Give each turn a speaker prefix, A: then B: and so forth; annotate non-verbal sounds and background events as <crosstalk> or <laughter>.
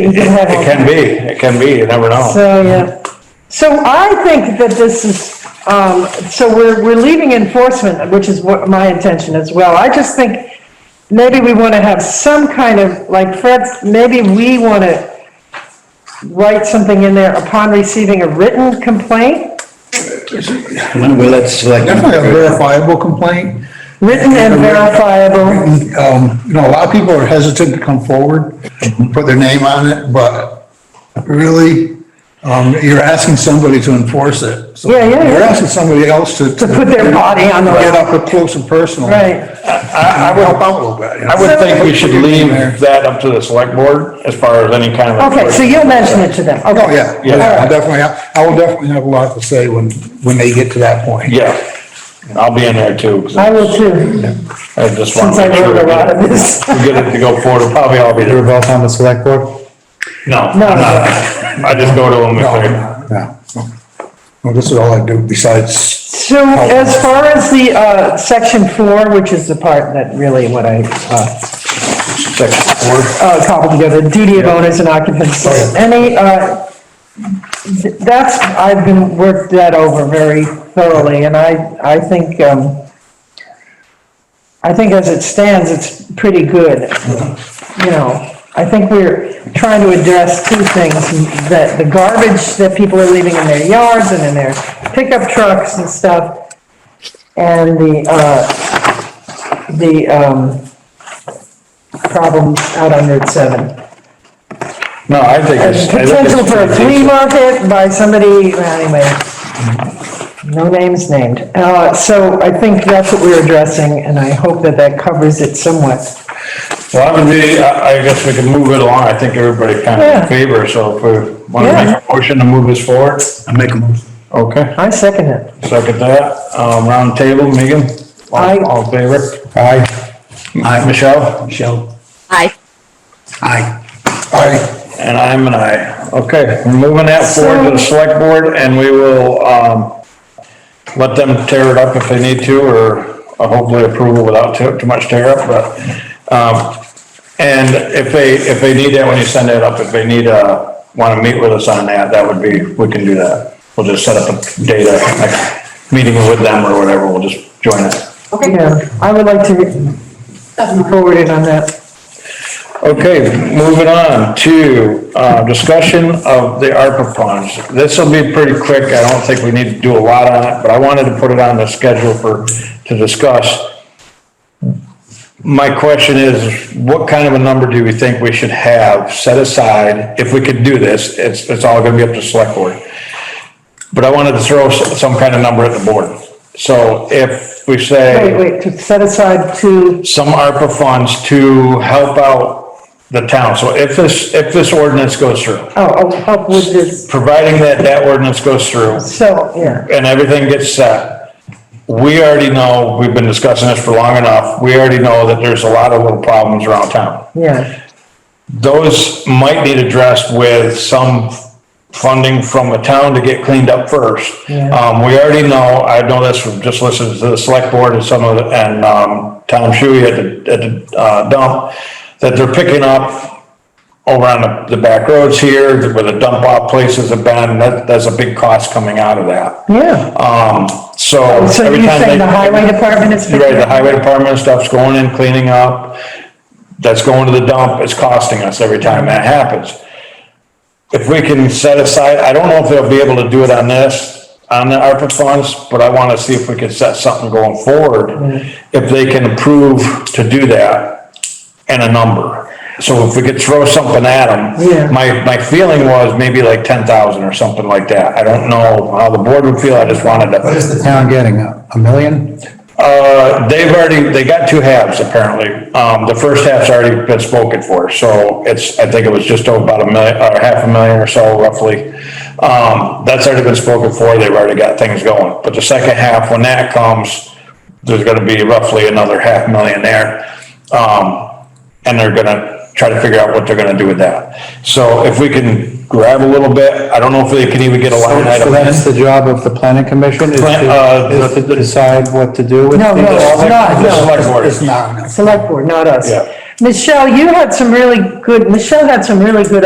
A: you could have
B: It
A: all
B: can be, it can be, you never know.
A: So, yeah. So I think that this is, um, so we're, we're leaving enforcement, which is what my intention as well. I just think maybe we want to have some kind of, like Fred, maybe we want to write something in there upon receiving a written complaint,
C: Well, that's like.
D: Definitely a verifiable complaint.
A: written and verifiable.
D: Um, you know, a lot of people are hesitant to come forward, and put their name on it, but really, um, you're asking somebody to enforce it. So
A: Yeah, yeah, yeah.
D: You're asking somebody else to.
A: To put their body on the-
D: Get up close and personal.
A: Right.
D: I, I would help out a little bit. you know.
B: I would think we should leave
D: There.
B: that up to the select board as far as any kind of.
A: Okay, so you'll mention it to them.
D: Oh, yeah,
B: Yeah.
D: yeah, I definitely, I will definitely have a lot to say when, when they get to that point.
B: Yeah, I'll be in there too. 'cause
A: I will too,
B: I just
A: since
B: want to
A: I
B: make sure
A: wrote a
B: we
A: lot of
B: get it-
A: this. <laughs>
B: we get it to go forward, probably I'll be there.
C: both on the select board?
B: No, I'm
A: No.
B: not. I just go to them if they're,
D: Yeah. Well, this is all I do besides
A: So as far as the, uh, section four, which is the part that really what I, uh,
D: section four.
A: uh, cobbled together, duty of owners and occupants. Any, uh, th- that's, I've been, worked that over very thoroughly, and I, I think, um, I think as it stands, it's pretty good, you know. I think we're trying to address two things, that the garbage that people are leaving in their yards and in their pickup trucks and stuff, and the, uh, the, um, problems out on Route 7.
B: no, I think it's. I think it's
A: Potential for a
B: pretty
A: flea
B: decent.
A: market by somebody, uh, anyway, no names named. Uh, So I think that's what we're addressing, and I hope that that covers it somewhat.
B: Well, I would be, I, I guess we can move it along. I think everybody kind of
A: Yeah.
B: in favor, so if we want to
A: Yeah.
B: make a motion to move this forward.
C: I make a motion.
B: Okay,
A: I second it.
B: second that. Um, round table, Megan? All-
A: Aye.
B: All in favor? Aye. Aye, Michelle?
C: Michelle?
E: Aye.
C: Aye.
D: I,
B: And I'm an aye. Okay, we're moving that forward to the select board and we will, um, let them tear it up if they need to, or uh, hopefully approval without too, too much tear up, but, um, and if they, if they need that, when you send it up, if they need, uh, wanna meet with us on that, that would be, we can do that. We'll just set up a data, like, meeting with them or whatever, we'll just join it.
A: Yeah, I would like to be forwarded on that.
B: Okay, moving on to, uh, discussion of the ARPA funds. This'll be pretty quick, I don't think we need to do a lot on it, but I wanted to put it on the schedule for, to discuss. My question is, what kind of a number do we think we should have set aside? If we could do this, it's, it's all gonna be up to select board. But I wanted to throw s- some kind of number at the board. So if we say
A: Wait, wait, to set aside to,
B: some ARPA funds to help out the town. So if this, if this ordinance goes through,
A: oh, oh, help with this,
B: providing that that ordinance goes through
A: so, yeah.
B: and everything gets set, we already know, we've been discussing this for long enough, we already know that there's a lot of little problems around town.
A: Yeah,
B: Those might need addressed with some funding from the town to get cleaned up first.
A: Yeah.
B: Um, we already know, I know this from just listening to the select board and some of, the- and, um, Tom Shuey at the, at the uh, dump, that they're picking up over on the, the back roads here, where the dump off places have been, that, that's a big cost coming out of that.
A: yeah.
B: Um, so.
A: So
B: every
A: you're
B: time
A: saying
B: they-
A: the highway department is?
B: Right, the highway department stuff's going in, cleaning up, that's going to the dump, it's costing us every time that happens. If we can set aside, I don't know if they'll be able to do it on this, on the ARPA funds, but I wanna see if we can set something going forward,
A: Mm-hmm.
B: if they can approve to do that and a number. So if we could throw something at them.
A: Yeah.
B: My, my feeling was maybe like ten thousand or something like that. I don't know how the board would feel, I just wanted to.
D: what is the town getting, a a million?
B: Uh, they've already, they got two halves apparently. Um, the first half's already been spoken for, so it's, I think it was just about a million, or half a million or so roughly. Um, that's already been spoken for, they've already got things going. But the second half, when that comes, there's gonna be roughly another half million there. Um, and they're gonna try to figure out what they're gonna do with that. So if we can grab a little bit, I don't know if they can even get a line
F: So
B: item in.
F: that's the job of the planning commission, is
B: Plan- uh,
F: to, is to decide what to do with
A: No, no,
F: things?
A: it's not,
B: The
A: no.
B: select board.
D: It's not enough.
A: Select board, not us.
B: Yeah.
A: Michelle, you had some really good, Michelle had some really good